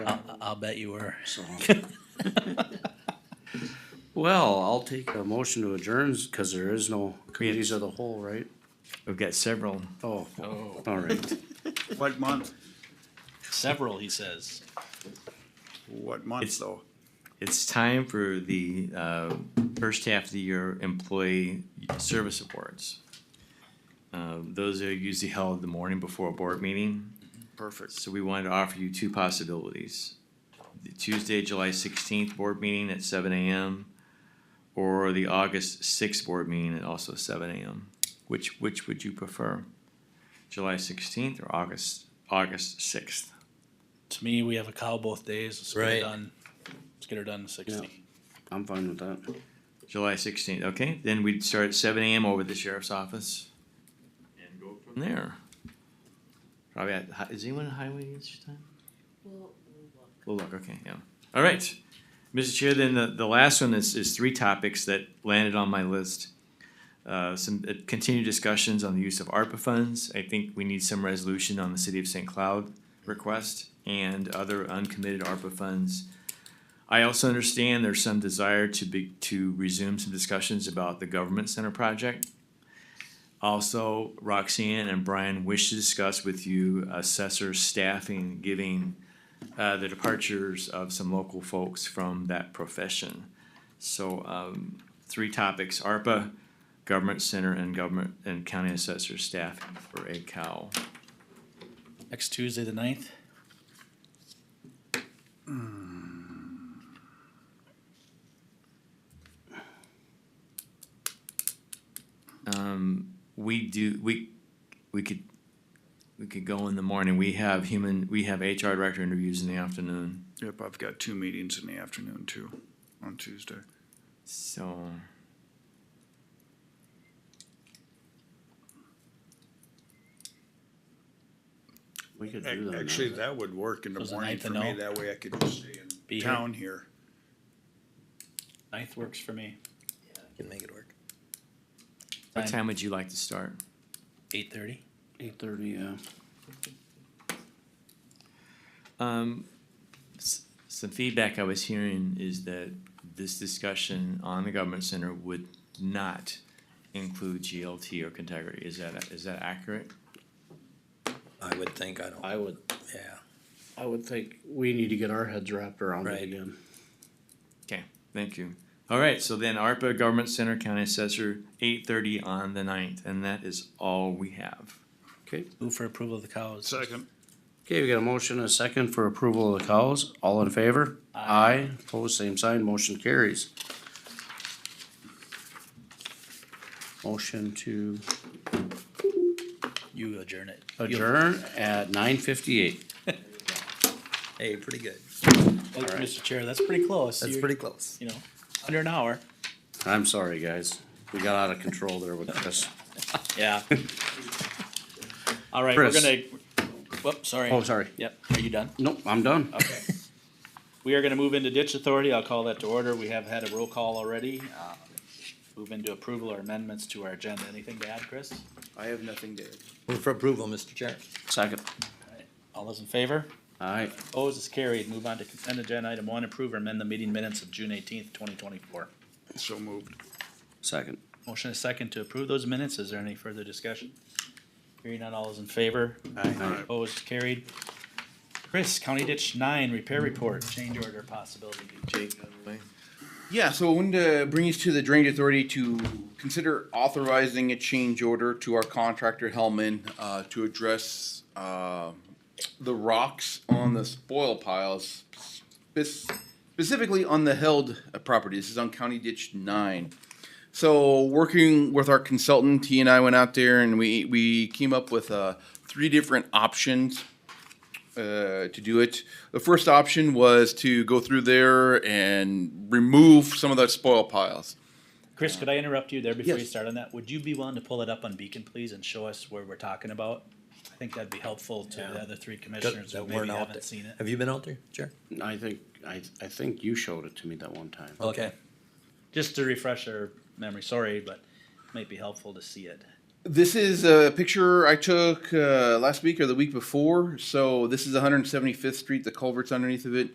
I'll bet you were. so. Well, I'll take a motion to adjourn, cause there is no committees of the whole, right? We've got several. Oh, all right. What month, Several, he says. what month It's- though? It's time for the uh, first half of the year employee service awards. Uh, Those are usually held the morning before a board meeting. Perfect. So we wanted to offer you two possibilities. The Tuesday, July sixteenth board meeting at seven AM or the August sixth board meeting at also seven AM. Which, which would you prefer? July sixteenth or August, August sixth? To me, we have a cow both days. Let's get Right. it done. Let's get her done in sixty. I'm fine with that. July sixteenth, okay, then we'd start at seven AM over at the sheriff's office. And go from there. Probably at, hi- is anyone at highway at this time? We'll look, okay, yeah, all right. Mr. Chair, then the, the last one is, is three topics that landed on my list. Uh, some uh, continued discussions on the use of ARPA funds, I think we need some resolution on the city of St. Cloud request and other uncommitted ARPA funds. I also understand there's some desire to be, to resume some discussions about the government center project. Also, Roxanne and Brian wish to discuss with you assessor staffing, giving uh, the departures of some local folks from that profession. So, um, three topics, ARPA, government center, and government and county assessor staffing for a cow. Next Tuesday, the ninth. Um, we do, we, we could, we could go in the morning. We have human, we have HR director interviews in the afternoon. Yep, I've got two meetings in the afternoon too, on Tuesday. So. We could do Ac- that. Actually, that would work in the So is the morning ninth a for me, no? that way I could just stay Be in here. town here. Ninth works for me. Can make it work. What time would you like to start? Eight thirty. Eight thirty, yeah. Um, s- some feedback I was hearing is that this discussion on the government center would not include GLT or Contagri. Is that, is that accurate? I would think, I don't, I would, yeah. I would think we need to get our heads wrapped around it Right. again. Okay, thank you. All right, so then ARPA, Government Center, County Assessor, eight thirty on the ninth, and that is all we have. Okay, Move for approval of the cows. Second. okay, we got a motion and a second for approval of the cows. All in favor? Aye. Opposed, same sign, motion carries. Motion to You adjourn it. You'll- adjourn at nine fifty-eight. Hey, pretty good. Like, Mr. Chair, that's pretty close. That's You're- pretty close. You know, under an hour. I'm sorry, guys. We got out of control there with Chris. Yeah. All right, we're Chris. gonna, whoop, sorry. Oh, sorry. Yep, are you done? Nope, I'm done. Okay. We are gonna move into ditch authority. I'll call that to order. We have had a roll call already. Uh, Move into approval or amendments to our agenda. Anything to add, Chris? I have nothing to add. Move for approval, Mr. Chair. Second. All those in favor? Aye. Opposed is carried. Move on to consent agenda item one, approve or amend the meeting minutes of June eighteenth, twenty twenty-four. So moved. Second. Motion is second to approve those minutes. Is there any further discussion? Hearing none, all those in favor? Aye. Opposed, carried. Chris, County Ditch Nine Repair Report, change order possibility. Jake, Yeah, so I wanted to bring us to the Drainage Authority to consider authorizing a change order to our contractor Hellman uh, to address uh, the rocks on the spoil piles, spec- specifically on the held uh, property. This is on County Ditch Nine. So working with our consultant, he and I went out there and we we came up with uh, three different options uh, to do it. The first option was to go through there and remove some of the spoil piles. Chris, could I interrupt you there before you Yes. start on that? Would you be willing to pull it up on Beacon, please, and show us where we're talking about? I think that'd be helpful to the other three commissioners who That weren't maybe out haven't there. seen it. Have you been out there, Chair? I think, I, I think you showed it to me that one time. Okay. Just to refresh our memory, sorry, but might be helpful to see it. This is a picture I took uh, last week or the week before. So this is 175th Street, the culvert's underneath of it.